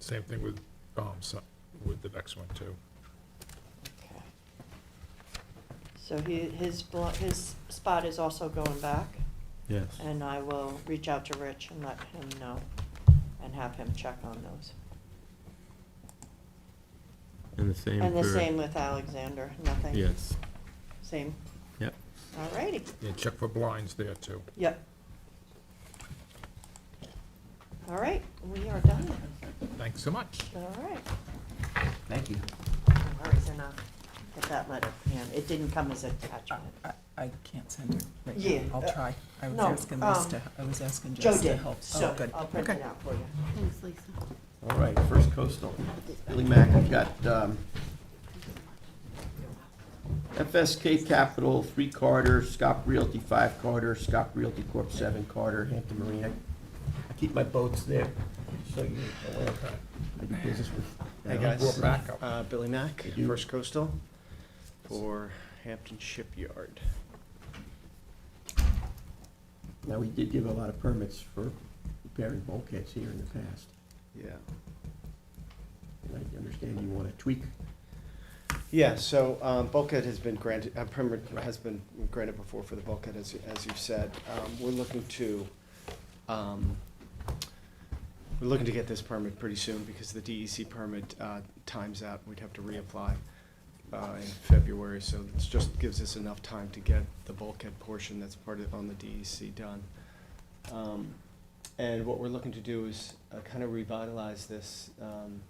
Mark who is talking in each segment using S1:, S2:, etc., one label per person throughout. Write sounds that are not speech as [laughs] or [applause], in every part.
S1: Same thing with, um, so, with the next one too.
S2: Okay. So he, his, blo- his spot is also going back,
S3: Yes.
S2: and I will reach out to Rich and let him know, and have him check on those.
S3: And the same
S2: And the
S3: for-
S2: same with Alexander, nothing?
S3: Yes,
S2: Same,
S3: yep.
S2: alrighty,
S1: Yeah, check for blinds there too.
S2: yep. All right, we are done,
S1: Thanks so much.
S2: all right.
S4: Thank you.
S2: All right, then I'll get that letter, and it didn't come as attachment.
S5: I- I can't send it right
S2: Yeah, uh,
S5: now. I'll try. I was
S2: no,
S5: asking Liz
S2: um,
S5: to, I was asking
S2: Joe
S5: Jess to
S2: did,
S5: help.
S2: so
S5: Oh, good.
S2: I'll print
S5: Okay.
S2: it out for you.
S6: Thanks, Lisa.
S4: All right, First Coastal. Billy Mack, I've got um, FSK Capital, three Carter, Scott Realty, five Carter, Scott Realty Corp., seven Carter, Hampton Marine. I- I keep my boats there, so you know where I do business with.
S7: Hey,
S1: We're
S7: guys.
S1: back up.
S7: Uh, Billy Mack,
S4: Thank you.
S7: First Coastal, for Hampton Shipyard.
S4: Now, we did give a lot of permits for repairing bulkheads here in the past.
S7: Yeah.
S4: And I understand you want to tweak
S7: Yeah, so um, bulkhead has been granted, a permit has been granted before for the bulkhead, as, as you've said. Um, We're looking to, um, we're looking to get this permit pretty soon because the DEC permit uh, times out. We'd have to reapply uh, in February, so this just gives us enough time to get the bulkhead portion that's part of, on the DEC done. Um, And what we're looking to do is kind of revitalize this um,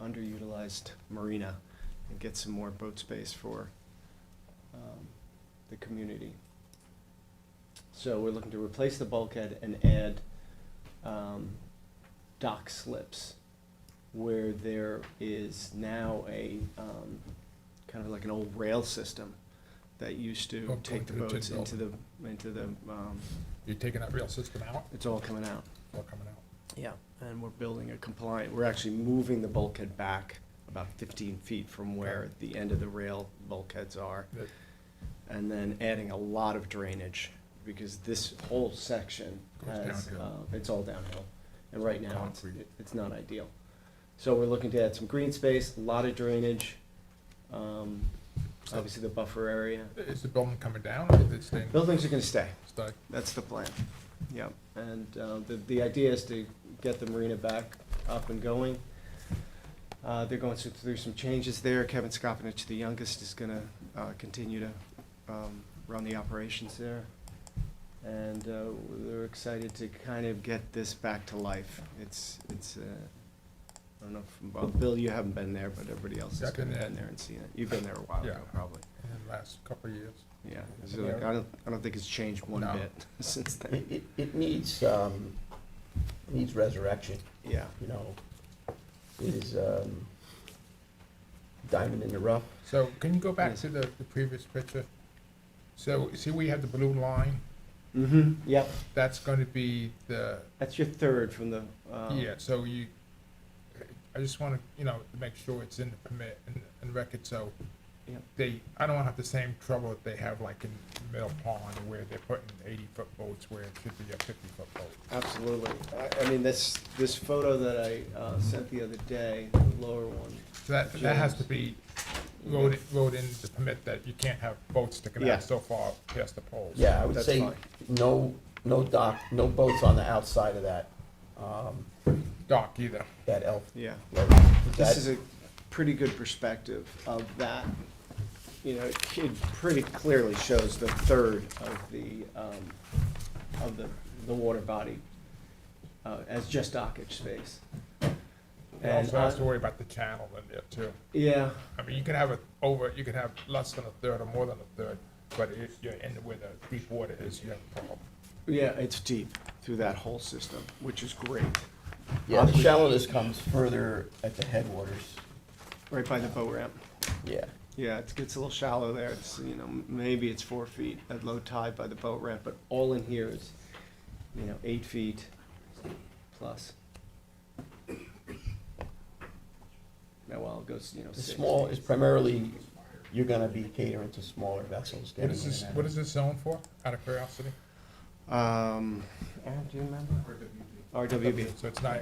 S7: underutilized marina and get some more boat space for um, the community. So we're looking to replace the bulkhead and add um, dock slips where there is now a, um, kind of like an old rail system that used
S1: Oh,
S7: to take
S1: going to
S7: the
S1: the
S7: boats
S1: tin
S7: into the, into the, um,
S1: You're taking that rail system out,
S7: it's all coming out.
S1: or coming out?
S7: Yeah, and we're building a compliant, we're actually moving the bulkhead back about fifteen feet from where the end of the rail bulkheads are.
S1: That-
S7: And then adding a lot of drainage, because this whole section
S1: Goes
S7: has, uh,
S1: downhill.
S7: it's all downhill. And right now, it's,
S1: Concrete.
S7: it- it's not ideal. So we're looking to add some green space, a lot of drainage, um, obviously the buffer area.
S1: Is the building coming down or is it staying?
S7: Buildings are gonna stay.
S1: Stay.
S7: That's the plan, yeah. And uh, the, the idea is to get the marina back up and going. Uh, They're going through- through some changes there. Kevin Skopinich, the youngest, is going to continue to um, run the operations there. And uh, we're excited to kind of get this back to life. It's, it's, uh, I don't know, if- well, Bill, you haven't been there, but everybody else
S1: Yeah,
S7: has
S1: I've been
S7: been
S1: there.
S7: there and seen it. You've been there a while ago,
S1: Yeah.
S7: probably.
S1: In the last couple of years.
S7: Yeah, It's like, I don't, I don't think it's changed one
S1: No.
S7: bit [laughs] since
S4: It,
S7: then.
S4: it, it needs, um, needs resurrection,
S7: Yeah.
S4: you know. It is, um, diamond in the rough.
S1: So can you go back
S7: Yes.
S1: to the, the previous picture? So see where you have the blue line?
S7: Mm-hmm, yep.
S1: That's gonna be the,
S7: That's your third from the, um.
S1: yeah, so you, I just wanna, you know, to make sure it's in the permit and, and record, so
S7: Yep.
S1: they, I don't wanna have the same trouble that they have like in Mill Pond where they're putting eighty-foot boats where it should be a fifty-foot boat.
S7: Absolutely. I, I mean, this, this photo that I, uh, sent the other day, the lower one.
S1: So that, that has to
S7: James.
S1: be wrote, in- wrote in the permit that you can't have boats sticking
S7: Yeah.
S1: out so far past the poles.
S4: Yeah, I would
S7: That's
S4: say,
S7: fine.
S4: no, no dock, no boats on the outside of that, um,
S1: Dock either.
S4: that elf.
S7: Yeah.
S4: That-
S7: This is a pretty good perspective of that. You know, it it pretty clearly shows the third of the, um, of the, the water body, uh, as just dockage space.
S1: You also
S7: And, uh,
S1: have to worry about the channel in there too.
S7: Yeah,
S1: I mean, you can have it over, you can have less than a third or more than a third, but if you're in where the deep water is, you have a problem.
S7: yeah, it's deep through that whole system, which is great,
S4: Yeah, the shallowness comes further at the headwaters.
S7: right by the boat ramp.
S4: Yeah.
S7: Yeah, it gets a little shallow there. It's, you know, m- maybe it's four feet at low tide by the boat ramp, but all in here is, you know, eight feet plus. Now, well, it goes, you know,
S4: The
S7: six.
S4: small, is primarily, you're gonna be catering to smaller vessels.
S1: What
S4: getting
S1: is
S4: in
S1: this,
S4: and out.
S1: what is this zone for, out of curiosity?
S7: Um, Aaron, do you remember? RWB.
S1: So it's not